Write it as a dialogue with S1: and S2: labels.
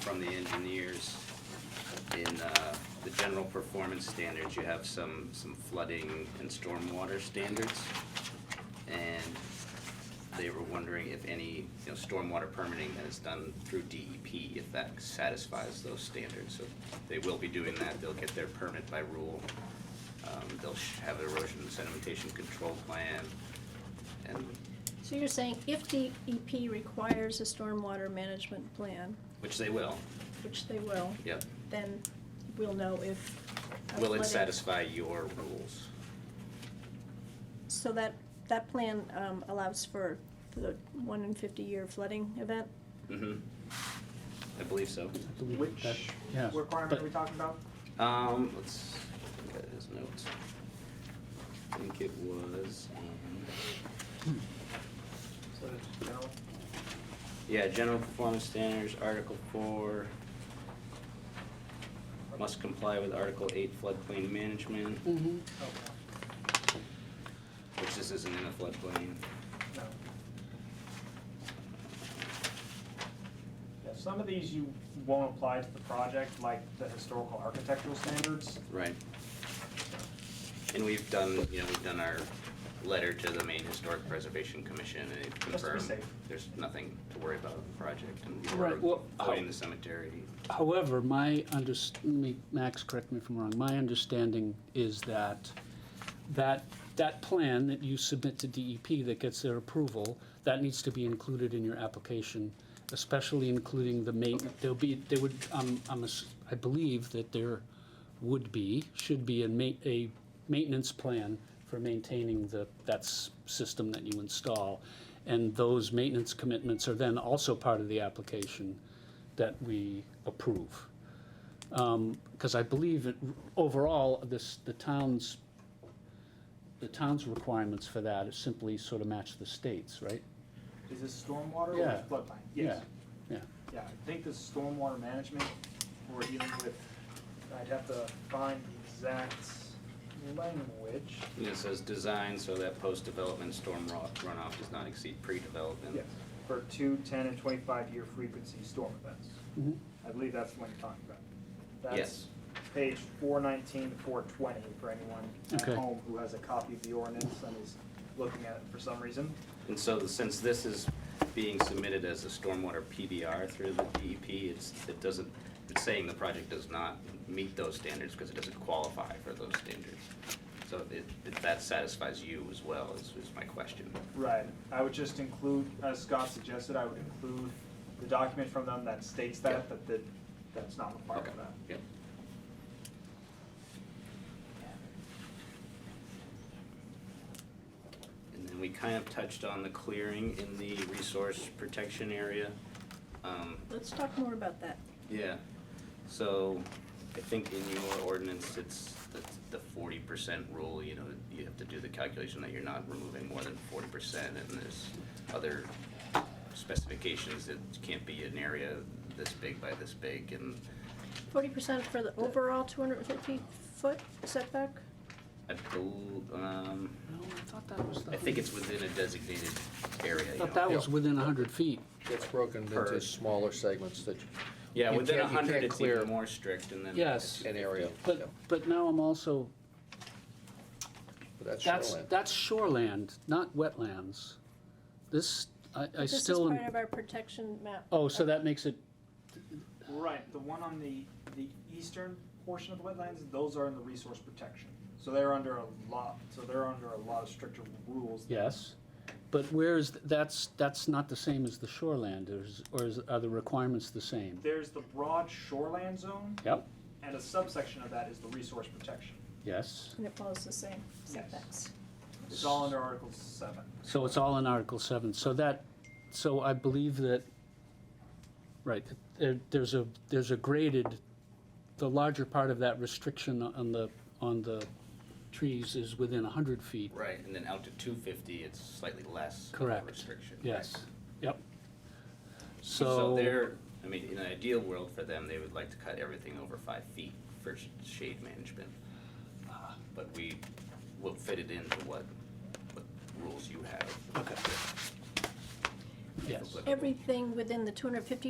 S1: from the engineers. In uh, the general performance standards, you have some, some flooding and stormwater standards. And they were wondering if any, you know, stormwater permitting that is done through DEP, if that satisfies those standards. So they will be doing that, they'll get their permit by rule. Um, They'll sh- have an erosion and sedimentation control plan. And,
S2: So you're saying if DEP requires a stormwater management plan,
S1: which they will,
S2: which they will,
S1: yep.
S2: then we'll know if. a
S1: Will it
S2: flooding-
S1: satisfy your rules?
S2: So that, that plan um, allows for the one in fifty-year flooding event?
S1: hmm I believe so.
S3: Which
S4: yeah,
S3: requirement
S4: but-
S3: are we talking about?
S1: Um, let's look at his notes. I think it was, um,
S3: So that's general.
S1: Yeah, general performance standards, Article four. Must comply with Article eight floodplain management,
S3: Okay,
S1: which this isn't in a floodplain.
S3: no. Yeah, some of these you won't apply to the project, like the historical architectural standards.
S1: Right. And we've done, you know, we've done our letter to the Maine Historic Preservation Commission and they've
S3: Just to be
S1: confirmed
S3: safe.
S1: there's nothing to worry about with the project and
S4: Right,
S1: we're
S4: well,
S1: avoiding
S4: how-
S1: the cemetery.
S4: However, my under, me- Max, correct me if I'm wrong, my understanding is that, that, that plan that you submit to DEP that gets their approval, that needs to be included in your application, especially including the main, there'll be, there would, um, I'm, ass- I believe that there would be, should be a ma- a maintenance plan for maintaining the, that s- system that you install. And those maintenance commitments are then also part of the application that we approve. Because I believe it, overall, this, the town's, the town's requirements for that is simply sort of match the state's, right?
S3: Is this stormwater
S4: Yeah.
S3: or floodplain? Yes.
S4: Yeah,
S3: Yeah, I think the stormwater management, we're dealing with, I'd have to find the exact language.
S1: And it says design so that post-development storm ro- runoff does not exceed pre-development.
S3: For two, ten, and twenty-five year frequency storm events.
S4: Mhm.
S3: I believe that's the one you're talking about.
S1: Yes.
S3: That's page four nineteen to four twenty for anyone at
S4: Okay.
S3: home who has a copy of the ordinance and is looking at it for some reason.
S1: And so since this is being submitted as a stormwater PBR through the DEP, it's, it doesn't, it's saying the project does not meet those standards because it doesn't qualify for those standards. So it, if that satisfies you as well, is, is my question.
S3: Right, I would just include, as Scott suggested, I would include the document from them that states that, that, that, that's not required
S1: Okay.
S3: of that.
S1: Yep. And then we kind of touched on the clearing in the resource protection area. Um,
S2: Let's talk more about that.
S1: Yeah, so I think in your ordinance, it's the, the forty percent rule, you know, you have to do the calculation that you're not removing more than forty percent, and there's other specifications that can't be an area this big by this big, and
S2: Forty percent for the overall two hundred and fifty foot setback?
S1: I bel- um,
S4: no, I thought that was the.
S1: I think it's within a designated area,
S4: I
S1: you know.
S4: thought that was within hundred feet.
S5: It's broken
S1: Per-
S5: into smaller segments that,
S1: Yeah,
S5: you
S1: within a
S5: can't- you
S1: hundred,
S5: can't
S1: it's
S5: clear-
S1: even more strict, and then.
S4: Yes.
S5: an area. yeah,
S4: But, but now I'm also,
S5: but that's
S4: that's,
S5: shoreline.
S4: that's shoreland, not wetlands. This, I, I
S2: This is
S4: still, am-
S2: part of our protection map.
S4: oh, so that makes it,
S3: Right, the one on the, the eastern portion of the wetlands, those are in the resource protection. So they're under a lot, so they're under a lot of stricter rules.
S4: yes. But where is, that's, that's not the same as the shoreland, or is, or is, are the requirements the same?
S3: There's the broad shoreland zone,
S4: Yep,
S3: and a subsection of that is the resource protection.
S4: yes.
S2: And it follows the same setbacks.
S3: It's all under Article seven.
S4: So it's all in Article 7. So that, so I believe that, right, there, there's a, there's a graded, the larger part of that restriction on the, on the trees is within 100 feet.
S1: Right, and then out to two fifty, it's slightly less of a
S4: Correct.
S1: restriction. right?
S4: Yes, yep.
S1: So
S4: So,
S1: they're, I mean, in an ideal world for them, they would like to cut everything over five feet for sh- shade management. Uh, But we will fit it into what, what rules you have.
S4: yes.
S2: Everything within the two hundred and fifty